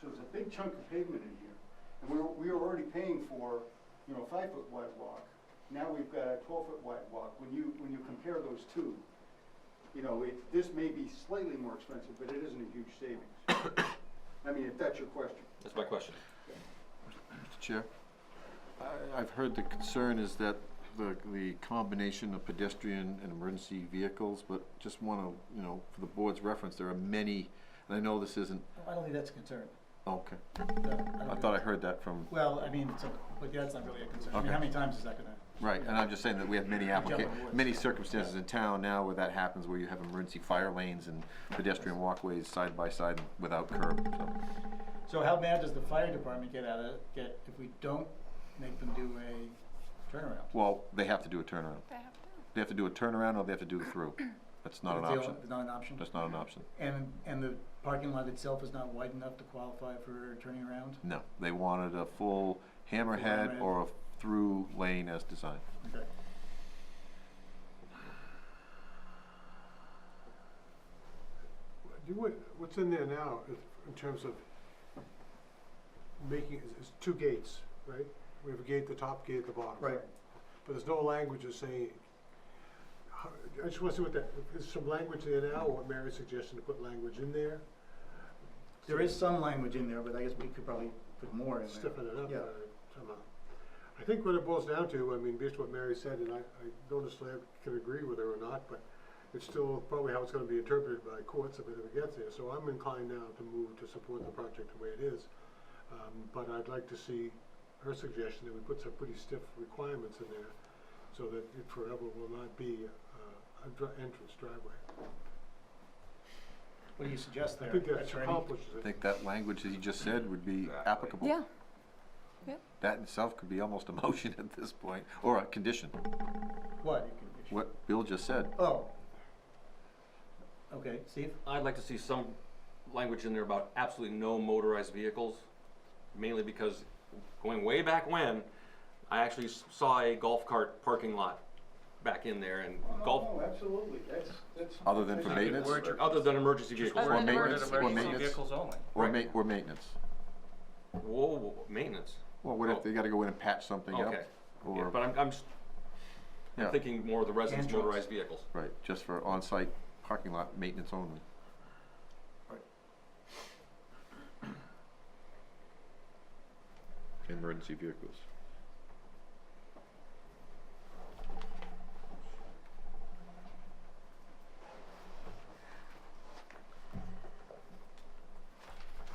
So it's a big chunk of pavement in here. And we're, we were already paying for, you know, five foot wide walk. Now we've got a twelve foot wide walk. When you, when you compare those two, you know, it, this may be slightly more expensive, but it isn't a huge savings. I mean, if that's your question. That's my question. Mr. Chair, I- I've heard the concern is that the, the combination of pedestrian and emergency vehicles, but just want to, you know, for the board's reference, there are many, and I know this isn't, I don't think that's a concern. okay. No, I don't thought I think- heard that from, Well, I mean, it's a- but that's not really a concern. I mean, Okay. how many times is that gonna? right, and I'm just saying that we have many Jumping applica, woods. many circumstances in town now where that happens, where you have emergency fire lanes and pedestrian walkways side by side without curb, so. So how mad does the fire department get out of, get, if we don't make them do a turnaround? Well, they have to do a turnaround. They have to. They have to do a turnaround or they have to do a through. That's not an It's the o- option. Not an option? That's not an option. And, and the parking lot itself is not wide enough to qualify for turning around? No, they wanted a full hammerhead Hammerhead. or a through lane as designed. Okay. You would, what's in there now, is- in terms of making, is is two gates, right? We have a gate at the top, gate at the bottom. Right. But there's no language of saying, how- I just want to see what that, is some language there now, or Mary's suggestion to put language in there? There is some language in there, but I guess we could probably put more in there. stiffen it up Yeah. uh, somehow. I think what it boils down to, I mean, based on what Mary said, and I, I don't necessarily can agree with her or not, but it's still probably how it's gonna be interpreted by courts if it ever gets there, so I'm inclined now to move to support the project the way it is. Um, but I'd like to see her suggestion that we put some pretty stiff requirements in there, so that it forever will not be, uh, a dri- entrance driveway. What do you suggest there? I think that attorney? accomplishes I it. think that language that you just said would be Exactly. applicable. Yeah, That in itself could be almost a motion at this point, or a condition, What? what Bill just said. Oh. Okay, Steve? I'd like to see some language in there about absolutely no motorized vehicles, mainly because going way back when, I actually s- saw a golf cart parking lot back in there and golf, Oh, No, absolutely, that's, that's. Other than for that's- maintenance? Word- other than emergency vehicles. Or Other than maintenance, or emergency maintenance. vehicles only. Or Right. ma, or maintenance. Whoa, whoa, whoa, maintenance, Well, what if they gotta go in and patch something up? okay. Yeah, but Or, I'm, I'm s- I'm yeah, thinking more of the residents' And trucks. motorized vehicles. right, just for on-site parking lot maintenance only. Right. Emergency vehicles.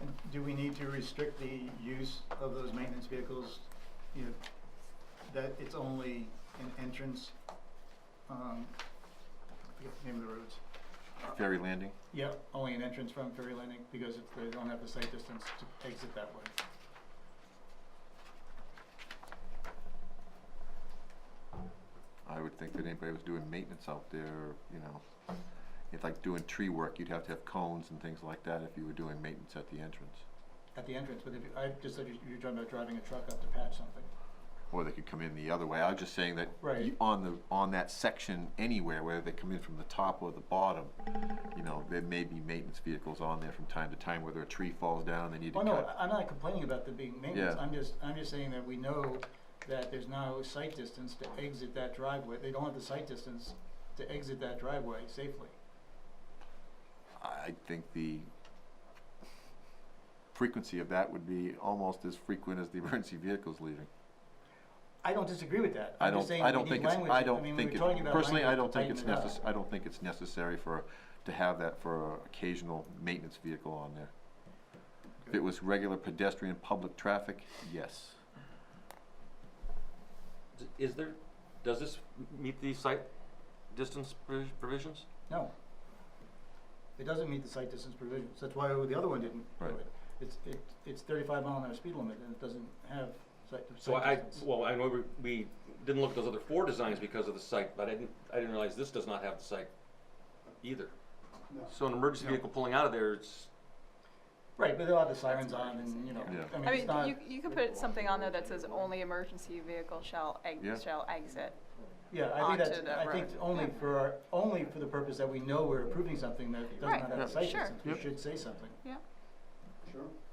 And Do we need to restrict the use of those maintenance vehicles, you know, that it's only an entrance? um, I forget the Name of the roads. Ferry landing? Yeah, only an entrance from Ferry Landing because if they don't have the sight distance to exit that way. I would think that anybody was doing maintenance out there, you know, if like doing tree work, you'd have to have cones and things like that if you were doing maintenance at the entrance. At the entrance, but if, you- I just said you- you're talking about driving a truck up to patch something. Or they could come in the other way. I was just saying that Right. you- on the, on that section anywhere, whether they come in from the top or the bottom, you know, there may be maintenance vehicles on there from time to time, whether a tree falls down, they need to Oh, no, cut. I- I'm not complaining about the being maintenance, Yeah. I'm just, I'm just saying that we know that there's no sight distance to exit that driveway, they don't have the sight distance to exit that driveway safely. I think the frequency of that would be almost as frequent as the emergency vehicles leaving. I don't disagree with that. I I'm just don't, saying I we don't need think it's, language. I don't mean, we think, were it- talking about personally, I language don't to think it's tighten it up. necess, I don't think it's necessary for, to have that for a occasional maintenance vehicle on there. If it was regular pedestrian public traffic, yes. D- Is there, does this m- meet the site distance provi- provisions? No. It doesn't meet the site distance provisions, that's why the other one didn't do Right. it. It's, it, it's thirty-five mile an hour speed limit, and it doesn't have site, So site I, distance. well, I know we, we didn't look at those other four designs because of the site, but I didn't, I didn't realize this does not have the site either. No. So an emergency vehicle pulling out of there, it's, Right, but they'll have the sirens on, and, you know, Yeah. I mean, I it's mean, not, you, you could put something on there that says only emergency vehicle shall Yeah. ex, shall exit. yeah, I think that's, onto the I think road. only Yeah. for, our- only for the purpose that we know we're approving something that does Right, not have a site sure. distance, we Yep. should say something. Yeah, Sure.